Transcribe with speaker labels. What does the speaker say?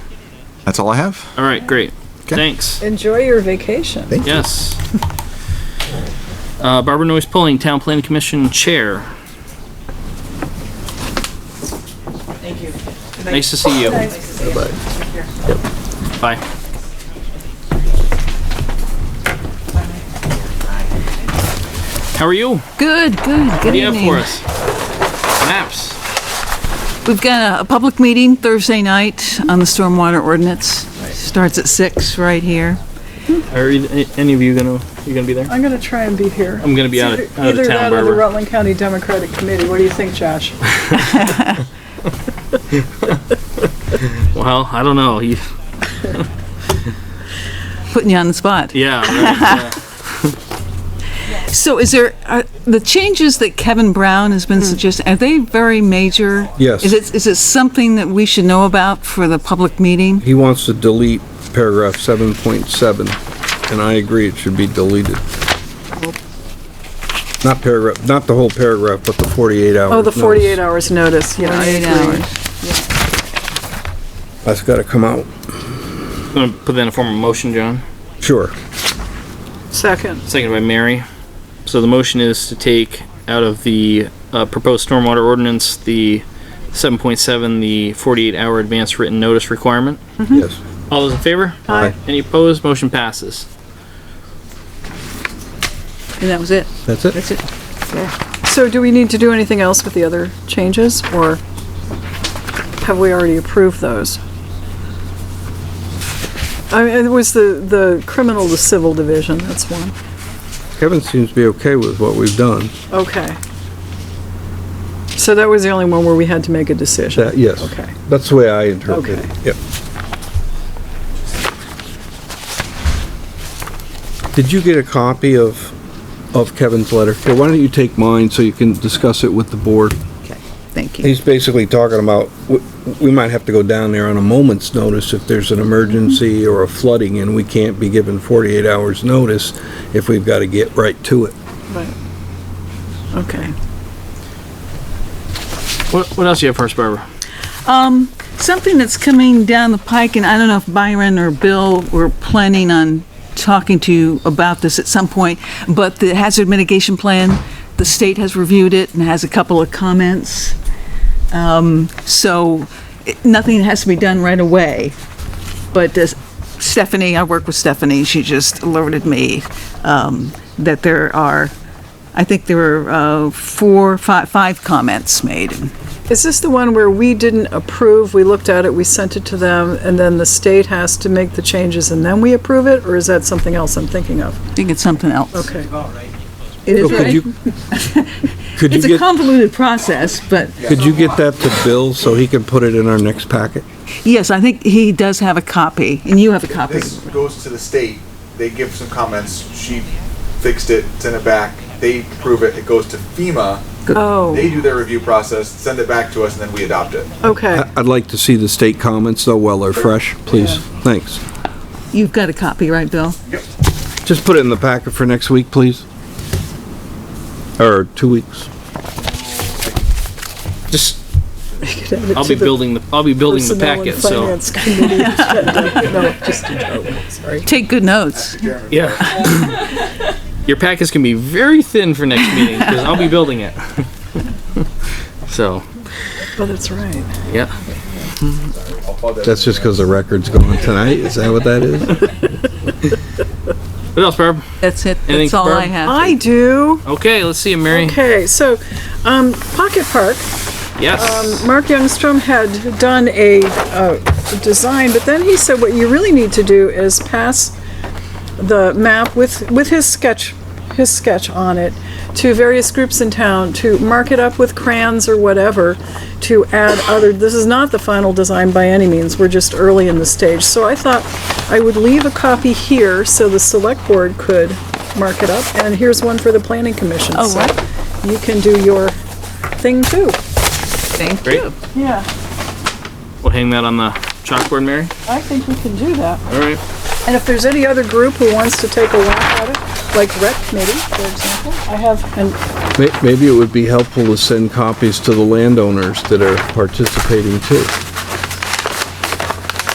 Speaker 1: That's all I have.
Speaker 2: All right, great.
Speaker 1: 'Kay.
Speaker 2: Thanks.
Speaker 3: Enjoy your vacation.
Speaker 1: Thank you.
Speaker 2: Yes. Uh, Barbara Noyes Pulling, Town Planning Commission Chair.
Speaker 4: Thank you.
Speaker 2: Nice to see you. Bye. How are you?
Speaker 4: Good, good,
Speaker 2: What
Speaker 4: good
Speaker 2: do you have
Speaker 4: evening.
Speaker 2: for us? Maps.
Speaker 4: We've got a, a public meeting Thursday night on the stormwater ordinance. Starts at six right here.
Speaker 2: Are e- any of you gonna you gonna be there?
Speaker 3: I'm gonna try and be here.
Speaker 2: I'm gonna be
Speaker 3: It's
Speaker 2: out of-
Speaker 3: either-
Speaker 2: out of
Speaker 3: Either
Speaker 2: town,
Speaker 3: that or the
Speaker 2: Barbara.
Speaker 3: Rutland County Democratic Committee. What do you think, Josh?
Speaker 2: Well, I don't know. You,
Speaker 4: Putting you on the spot.
Speaker 2: yeah. right,
Speaker 4: So is there, are, the changes that Kevin Brown has
Speaker 3: Hmm.
Speaker 4: been suggesting, are they very major?
Speaker 5: Yes.
Speaker 4: Is it, is it something that we should know about for the public meeting?
Speaker 5: He wants to delete paragraph seven point seven, and I agree it should be deleted. Not paragraph, not the whole paragraph, but the forty-eight hours.
Speaker 3: Oh, the
Speaker 5: notice.
Speaker 3: 48 hours notice. Yeah, I
Speaker 4: 48
Speaker 3: agree.
Speaker 4: hours.
Speaker 5: That's gotta come out,
Speaker 2: yeah. gonna put that in a form of motion, John.
Speaker 5: sure.
Speaker 3: Second.
Speaker 2: Seconded by Mary. So the motion is to take out of the uh, proposed stormwater ordinance the 7.7, the 48-hour advance written notice requirement.
Speaker 5: Yes.
Speaker 2: All those in favor?
Speaker 3: Mm-hmm. Aye.
Speaker 2: Any opposed? Motion passes.
Speaker 4: And that was it?
Speaker 5: That's it?
Speaker 4: That's it?
Speaker 3: So do we need to do anything else with the other changes, or have we already approved those? I mean, it was the, the criminal to civil division, that's one.
Speaker 5: Kevin seems to be okay with what we've done.
Speaker 3: Okay. So that was the only one where we had to make a decision?
Speaker 5: That, yes.
Speaker 3: Okay.
Speaker 5: That's the way I interpret
Speaker 3: Okay.
Speaker 5: it. Yep. Did you get a copy of, of Kevin's letter? Here, why don't you take mine so you can discuss it with the board?
Speaker 4: Okay, thank you.
Speaker 5: He's basically talking about, w- we might have to go down there on a moment's notice if there's an emergency or a flooding and we can't be given 48 hours' notice if we've got to get right to it.
Speaker 3: Right. Okay.
Speaker 2: What, what else do you have for us, Barbara?
Speaker 4: Um, something that's coming down the pike, and I don't know if Byron or Bill were planning on talking to you about this at some point, but the hazard mitigation plan, the state has reviewed it and has a couple of comments. Um, so, it- nothing has to be done right away. But uh, Stephanie, I work with Stephanie, she just alerted me, um, that there are, I think there were, uh, four, five, five comments made.
Speaker 3: Is this the one where we didn't approve, we looked at it, we sent it to them, and then the state has to make the changes and then we approve it, or is that something else I'm thinking of?
Speaker 4: I think it's something else.
Speaker 3: Okay.
Speaker 4: It is
Speaker 5: So could
Speaker 4: right.
Speaker 5: you- Could you
Speaker 4: It's a
Speaker 5: get,
Speaker 4: convoluted process, but
Speaker 5: could you get that to Bill so he can put it in our next packet?
Speaker 4: yes, I think he does have a copy, and you have a copy.
Speaker 6: This goes to the state, they give some comments, she fixed it, sent it back, they approve it, it goes to FEMA,
Speaker 3: Oh,
Speaker 6: they do their review process, send it back to us, and then we adopt it.
Speaker 3: okay.
Speaker 5: I- I'd like to see the state comments though while they're fresh, please. Thanks.
Speaker 4: You've got a copy, right, Bill?
Speaker 5: Just put it in the packet for next week, please. Or two weeks.
Speaker 2: Just I'll be building the I'll be building the packet. So
Speaker 3: No, just a joke, sorry.
Speaker 4: Take good notes.
Speaker 2: yeah, your packets can be very thin for next meeting because I'll be building it. so
Speaker 3: Oh, that's right.
Speaker 2: yeah,
Speaker 6: I'll call that-
Speaker 5: That's just because the record's going tonight, is that what that is?
Speaker 2: what else, Barb?
Speaker 4: That's it.
Speaker 2: Anything
Speaker 4: That's all I
Speaker 2: firm?
Speaker 4: have.
Speaker 3: I do.
Speaker 2: Okay, let's see you, Mary.
Speaker 3: Okay, so, um, Pocket Park,
Speaker 2: Yes.
Speaker 3: Mark Youngstrom had done a, uh, design, but then he said what you really need to do is pass the map with, with his sketch, his sketch on it to various groups in town to mark it up with crayons or whatever to add other, this is not the final design by any means, we're just early in the stage. So I thought I would leave a copy here so the select board could mark it up, and here's one for the planning commission.
Speaker 4: Oh,
Speaker 3: So
Speaker 4: right.
Speaker 3: You can do your thing too.
Speaker 4: Thank
Speaker 2: Great.
Speaker 4: you.
Speaker 3: Yeah.
Speaker 2: We'll hang that on the chalkboard, Mary.
Speaker 3: I think we can do that.
Speaker 2: All right.
Speaker 3: And if there's any other group who wants to take a look at it, like rec committee, for example, I have, and
Speaker 5: May- Maybe it would be helpful to send copies to the landowners that are participating too.